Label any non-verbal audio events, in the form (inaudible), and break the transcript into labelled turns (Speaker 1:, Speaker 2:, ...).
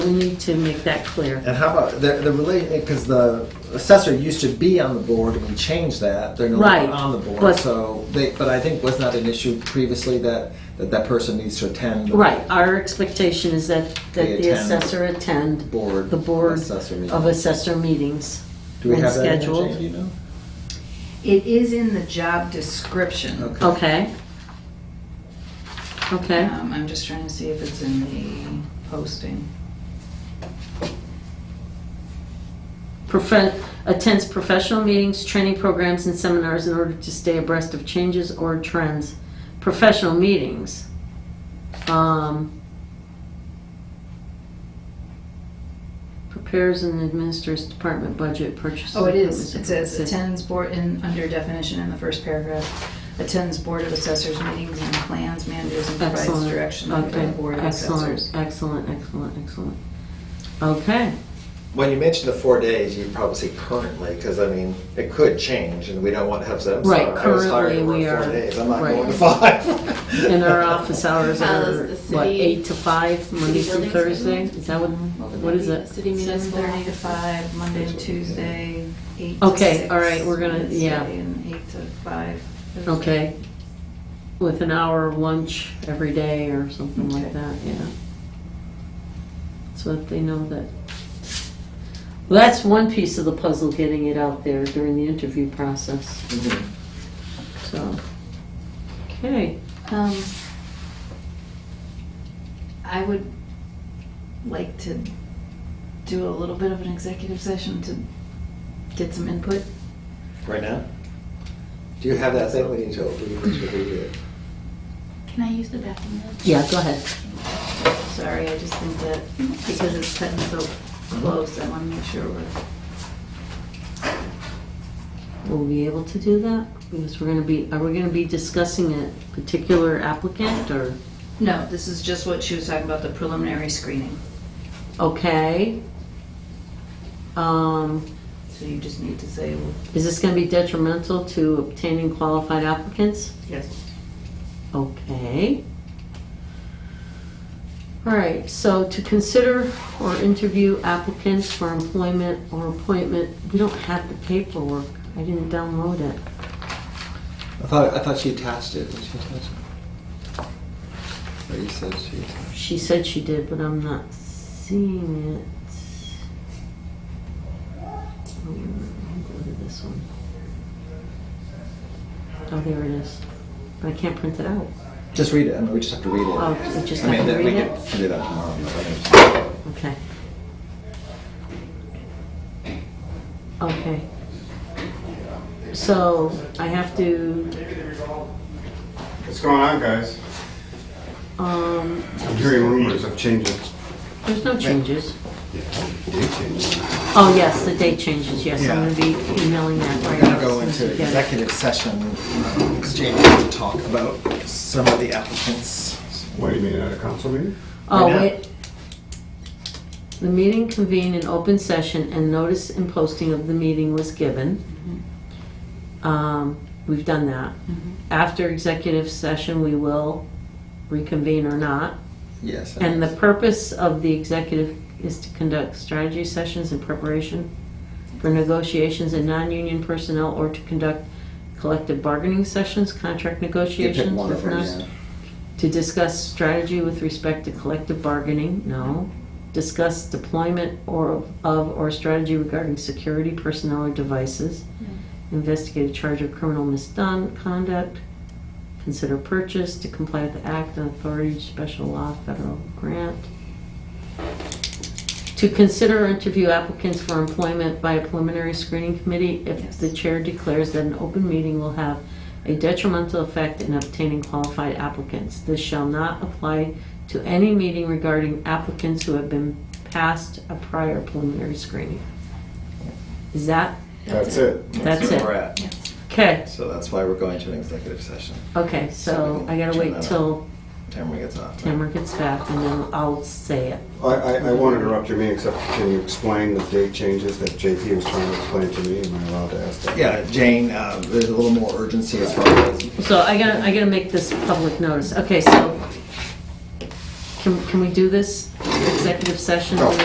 Speaker 1: We need to make that clear.
Speaker 2: And how about the, the relation? Because the assessor used to be on the board, and we changed that. They're no
Speaker 1: Right,
Speaker 2: longer on the board.
Speaker 1: but-
Speaker 2: so they, but I think was not an issue previously that that, that person needs to attend. the
Speaker 1: Right, our expectation is that,
Speaker 2: They
Speaker 1: that the
Speaker 2: attend.
Speaker 1: assessor attend
Speaker 2: Board.
Speaker 1: the board
Speaker 2: Assessor meeting.
Speaker 1: of assessor meetings.
Speaker 2: Do we
Speaker 1: and
Speaker 2: have that in there,
Speaker 1: scheduled.
Speaker 2: Jane, do you know?
Speaker 3: It is in the job description.
Speaker 2: Okay.
Speaker 1: Okay. Okay,
Speaker 3: Um, I'm just trying to see if it's in the posting.
Speaker 1: Profe- attends professional meetings, training programs, and seminars in order to stay abreast of changes or trends. Professional meetings. Um, Prepares and administers department budget purchases.
Speaker 3: Oh, it is. It says attends board in, under definition in the first paragraph, attends board of assessors meetings and plans, managers and provides
Speaker 1: Excellent.
Speaker 3: direction to the
Speaker 1: Okay.
Speaker 3: board of
Speaker 1: Excellent.
Speaker 3: assessors.
Speaker 1: Excellent, excellent, excellent. Okay,
Speaker 2: When you mentioned the four days, you probably say currently, because I mean, it could change, and we don't want to have that.
Speaker 1: Right, currently we are-
Speaker 2: Four days. I'm not
Speaker 1: right.
Speaker 2: going to five.
Speaker 1: and our office
Speaker 2: (laughs)
Speaker 1: hours
Speaker 4: Uh,
Speaker 1: are,
Speaker 4: the
Speaker 1: what,
Speaker 4: city-
Speaker 1: eight to five, Monday
Speaker 4: city
Speaker 1: through
Speaker 4: buildings,
Speaker 1: Thursday?
Speaker 4: isn't
Speaker 1: Is that what,
Speaker 3: Mm-hmm.
Speaker 1: what is it?
Speaker 4: City
Speaker 3: Seven
Speaker 4: municipal.
Speaker 3: thirty to five, Monday and Tuesday, eight to
Speaker 1: Okay,
Speaker 3: six,
Speaker 1: all right, we're gonna-
Speaker 3: Wednesday,
Speaker 1: yeah.
Speaker 3: And eight to five.
Speaker 1: Okay, with an hour lunch every day or something like
Speaker 3: Okay.
Speaker 1: that, yeah. So that they know that. Well, that's one piece of the puzzle, getting it out there during the interview process,
Speaker 2: Mhm.
Speaker 1: so. Okay,
Speaker 3: Um, I would like to do a little bit of an executive session to get some input.
Speaker 2: Right now. Do you have that thing we need to open? We should read it.
Speaker 4: Can I use the bathroom?
Speaker 1: yeah, go ahead.
Speaker 3: Sorry, I just think that because it's cutting so close, I want to make sure we're,
Speaker 1: Will we be able to do that? Because we're gonna be, are we gonna be discussing a particular applicant or,
Speaker 3: no, this is just what she was talking about, the preliminary screening.
Speaker 1: okay? Um,
Speaker 3: So you just need to say, well,
Speaker 1: is this gonna be detrimental to obtaining qualified applicants?
Speaker 3: yes.
Speaker 1: Okay. All right, so to consider or interview applicants for employment or appointment, we don't have the paperwork. I didn't download it.
Speaker 2: I thought I thought she attached it. Did she attach it? Or you said she attached.
Speaker 1: She said she did, but I'm not seeing it. Oh, where- I'll go to this one. Oh, there it is. But I can't print it out.
Speaker 2: Just read it. I mean, we just have to read it.
Speaker 1: Oh, we just
Speaker 2: I mean,
Speaker 1: have to
Speaker 2: that- we
Speaker 1: read
Speaker 2: can
Speaker 1: it?
Speaker 2: do that tomorrow. but I mean,
Speaker 1: Okay. Okay. So I have to,
Speaker 5: What's going on, guys?
Speaker 1: um,
Speaker 5: I'm hearing rumors of changes.
Speaker 1: there's no changes.
Speaker 5: Date changes.
Speaker 1: Oh, yes, the date changes, yes, I'm gonna be emailing that
Speaker 2: We're
Speaker 1: right
Speaker 2: gonna
Speaker 1: now.
Speaker 2: go
Speaker 1: as soon as
Speaker 2: into
Speaker 1: we get it.
Speaker 2: executive session, um, Jamie, to talk about some of the applicants.
Speaker 5: What, you mean at a council meeting?
Speaker 1: Oh,
Speaker 2: right now.
Speaker 1: wait. The meeting convened in open session and notice and posting of the meeting was given. Um, We've done that. After executive session, we will reconvene or not.
Speaker 2: Yes. I
Speaker 1: And the
Speaker 2: guess.
Speaker 1: purpose of the executive is to conduct strategy sessions in preparation for negotiations and non-union personnel or to conduct collective bargaining sessions, contract
Speaker 2: You pick
Speaker 1: negotiations
Speaker 2: one of
Speaker 1: with
Speaker 2: them,
Speaker 1: non-
Speaker 2: yeah.
Speaker 1: to discuss strategy with respect to collective bargaining, no. Discuss deployment or of or strategy regarding security personnel or devices. Investigate a charge of criminal misconduct. Consider purchase to comply with the act and authority, special law, federal grant. To consider or interview applicants for employment by a preliminary screening committee if
Speaker 3: Yes.
Speaker 1: the chair declares that an open meeting will have a detrimental effect in obtaining qualified applicants. This shall not apply to any meeting regarding applicants who have been past a prior preliminary screening. Is that,
Speaker 5: That's it.
Speaker 1: That's
Speaker 2: where
Speaker 1: it.
Speaker 2: We're at.
Speaker 1: okay,
Speaker 2: So that's why we're going to an executive session.
Speaker 1: okay, so I gotta wait till
Speaker 2: Tamara gets on.
Speaker 1: Tamara gets back and then I'll say it.
Speaker 5: I, I, I won't interrupt your meeting, except can you explain the date changes that JP was trying to explain to me? Am I allowed to ask that?
Speaker 2: Yeah, Jane, uh, there's a little more urgency as far as
Speaker 1: So I gotta, I gotta make this public notice, okay, so, can, can we do this
Speaker 6: executive session.
Speaker 1: Oh.